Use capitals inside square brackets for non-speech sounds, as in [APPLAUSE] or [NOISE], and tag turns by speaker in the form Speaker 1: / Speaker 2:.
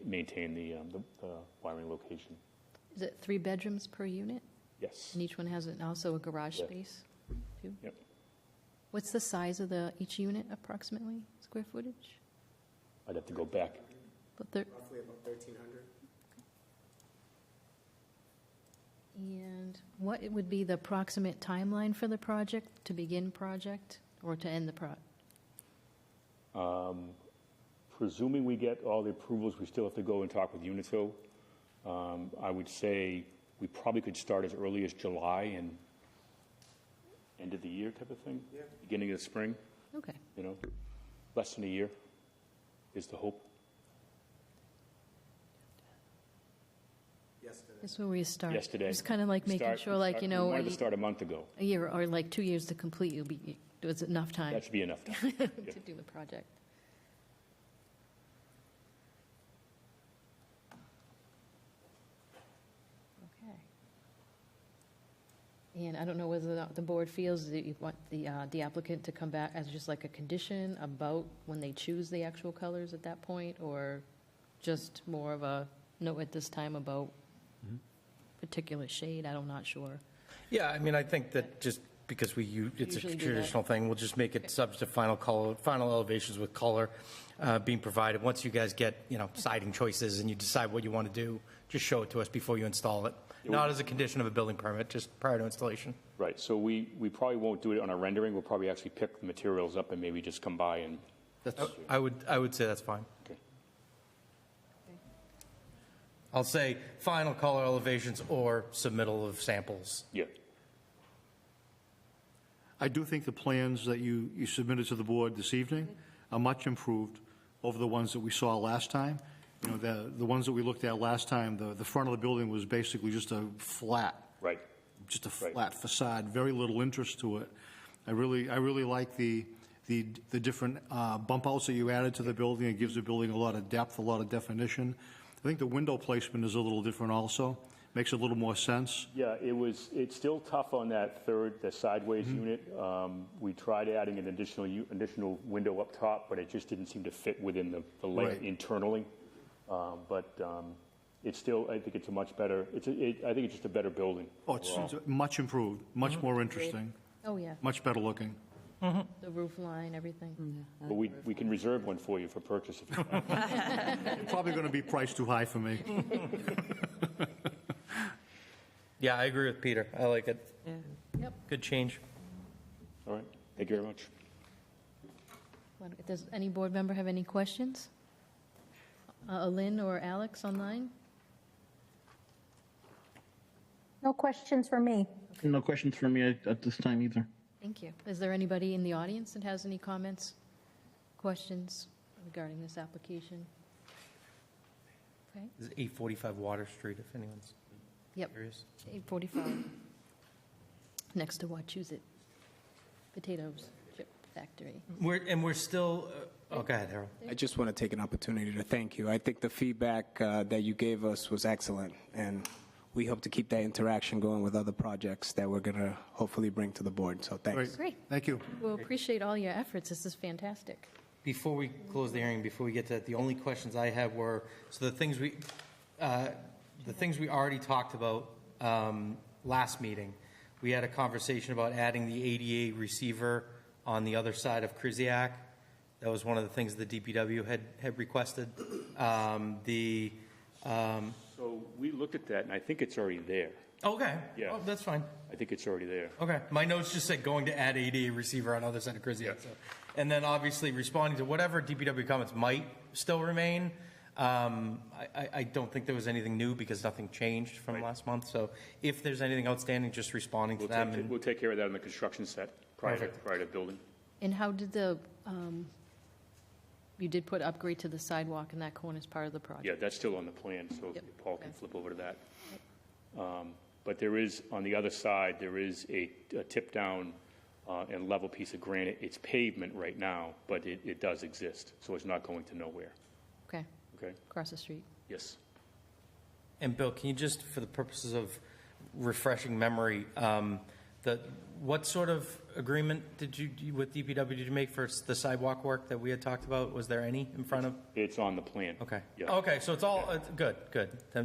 Speaker 1: maintain the, um, the the wiring location.
Speaker 2: Is it three bedrooms per unit?
Speaker 1: Yes.
Speaker 2: And each one has an- also a garage
Speaker 1: Yeah.
Speaker 2: space? too?
Speaker 1: Yep.
Speaker 2: What's the size of the, each unit approximately, square footage?
Speaker 1: I'd have to go back.
Speaker 2: But there,
Speaker 3: roughly about thirteen hundred.
Speaker 2: and what would be the approximate timeline for the project, to begin project or to end the pro?
Speaker 1: Presuming we get all the approvals, we still have to go and talk with Unitil. Um, I would say we probably could start as early as July and end of the year type of thing.
Speaker 3: Yeah.
Speaker 1: Beginning of the spring,
Speaker 2: Okay,
Speaker 1: you know, less than a year is the hope.
Speaker 3: Yesterday,
Speaker 2: that's where we start.
Speaker 1: Yesterday.
Speaker 2: It's kind of like making
Speaker 1: Start-
Speaker 2: sure, like,
Speaker 1: start-
Speaker 2: you
Speaker 1: We
Speaker 2: know,
Speaker 1: wanted to
Speaker 2: a
Speaker 1: start a month ago.
Speaker 2: a year or like two years to complete, you'll be, there's enough time
Speaker 1: That should be enough time.
Speaker 2: [LAUGHS] to do the project. Okay. And I don't know whether the- the board feels that you want the uh, the applicant to come back as just like a condition about when they choose the actual colors at that point, or just more of a note at this time about particular shade, I'm not sure.
Speaker 4: Yeah, I mean, I think that just because we, u- it's a
Speaker 2: Usually do that.
Speaker 4: traditional thing, we'll just make it subject to final color, final elevations with color uh, being provided. Once you guys get, you know, siding choices and you decide what you want to do, just show it to us before you install it. Not as a condition of a building permit, just prior to installation.
Speaker 1: Right, so we, we probably won't do it on our rendering, we'll probably actually pick the materials up and maybe just come by and,
Speaker 4: I would, I would say that's fine.
Speaker 1: okay.
Speaker 4: I'll say final color elevations or submittal of samples.
Speaker 1: yeah,
Speaker 5: I do think the plans that you, you submitted to the board this evening are much improved over the ones that we saw last time. You know, the, the ones that we looked at last time, the, the front of the building was basically just a flat,
Speaker 1: right.
Speaker 5: just a
Speaker 1: Right.
Speaker 5: flat facade, very little interest to it. I really, I really like the, the, the different uh, bump outs that you added to the building. It gives the building a lot of depth, a lot of definition. I think the window placement is a little different also, makes a little more sense.
Speaker 1: Yeah, it was, it's still tough on that third, the sideways
Speaker 5: Mm-hmm.
Speaker 1: unit. Um, We tried adding an additional, u- additional window up top, but it just didn't seem to fit within the the layout
Speaker 5: Right.
Speaker 1: internally. Um, But um, it's still, I think it's a much better, it's, a- it- I think it's just a better building.
Speaker 5: Oh, it's it's much improved, much more interesting,
Speaker 2: Oh, yeah,
Speaker 5: much better looking.
Speaker 2: the roof line, everything.
Speaker 1: But we, we can reserve one for you for purchase if you
Speaker 5: [LAUGHS]
Speaker 1: want.
Speaker 5: Probably going to be priced too high for me.
Speaker 4: Yeah, I agree with Peter. I like it.
Speaker 2: Yep.
Speaker 4: Good change.
Speaker 1: All right, thank you very much.
Speaker 2: Well, Does any board member have any questions? Uh, Lynn or Alex online?
Speaker 6: No questions for me.
Speaker 7: No questions for me at, at this time either.
Speaker 2: Thank you. Is there anybody in the audience that has any comments, questions regarding this application? Okay,
Speaker 4: This is 845 Water Street, if anyone's
Speaker 2: yep,
Speaker 4: curious.
Speaker 2: 845. Next to Wachusett Potatoes Chip Factory.
Speaker 4: We're, and we're still, uh, oh, go ahead, Harold.
Speaker 3: I just want to take an opportunity to thank you. I think the feedback uh, that you gave us was excellent, and we hope to keep that interaction going with other projects that we're going to hopefully bring to the board, so thanks.
Speaker 2: Great.
Speaker 5: Thank you.
Speaker 2: Well, appreciate all your efforts. This is fantastic.
Speaker 4: Before we close the hearing, before we get to that, the only questions I have were, so the things we, uh, the things we already talked about um, last meeting, we had a conversation about adding the ADA receiver on the other side of Kriziak. That was one of the things the DPW had, had requested. Um, The, um,
Speaker 1: So we looked at that, and I think it's already there.
Speaker 4: okay,
Speaker 1: Yeah.
Speaker 4: Oh, that's fine.
Speaker 1: I think it's already there.
Speaker 4: Okay, my notes just said going to add ADA receiver on other side of Krizia. so And then obviously responding to whatever DPW comments might still remain. Um, I, I, I don't think there was anything new because nothing changed from last month. So if there's anything outstanding, just responding to
Speaker 1: We'll
Speaker 4: them.
Speaker 1: take,
Speaker 4: and-
Speaker 1: we'll take care of that on the construction set prior to,
Speaker 4: Perfect.
Speaker 1: prior to building.
Speaker 2: And how did the, um, you did put upgrade to the sidewalk in that corner as part of the project?
Speaker 1: Yeah, that's still on the plan, so
Speaker 2: Yep.
Speaker 1: Paul can flip over to that. Um, But there is, on the other side, there is a a tip-down uh, and level piece of granite. It's pavement right now, but it, it does exist, so it's not going to nowhere,
Speaker 2: Okay,
Speaker 1: okay?
Speaker 2: across the street.
Speaker 1: Yes.
Speaker 4: And Bill, can you just, for the purposes of refreshing memory, um, The, what sort of agreement did you, you- with DPW did you make for s- the sidewalk work that we had talked about? Was there any in front of?
Speaker 1: It's on the plan.
Speaker 4: Okay. Oh,
Speaker 1: Yeah.
Speaker 4: Okay, so it's all, it's- good, good. Then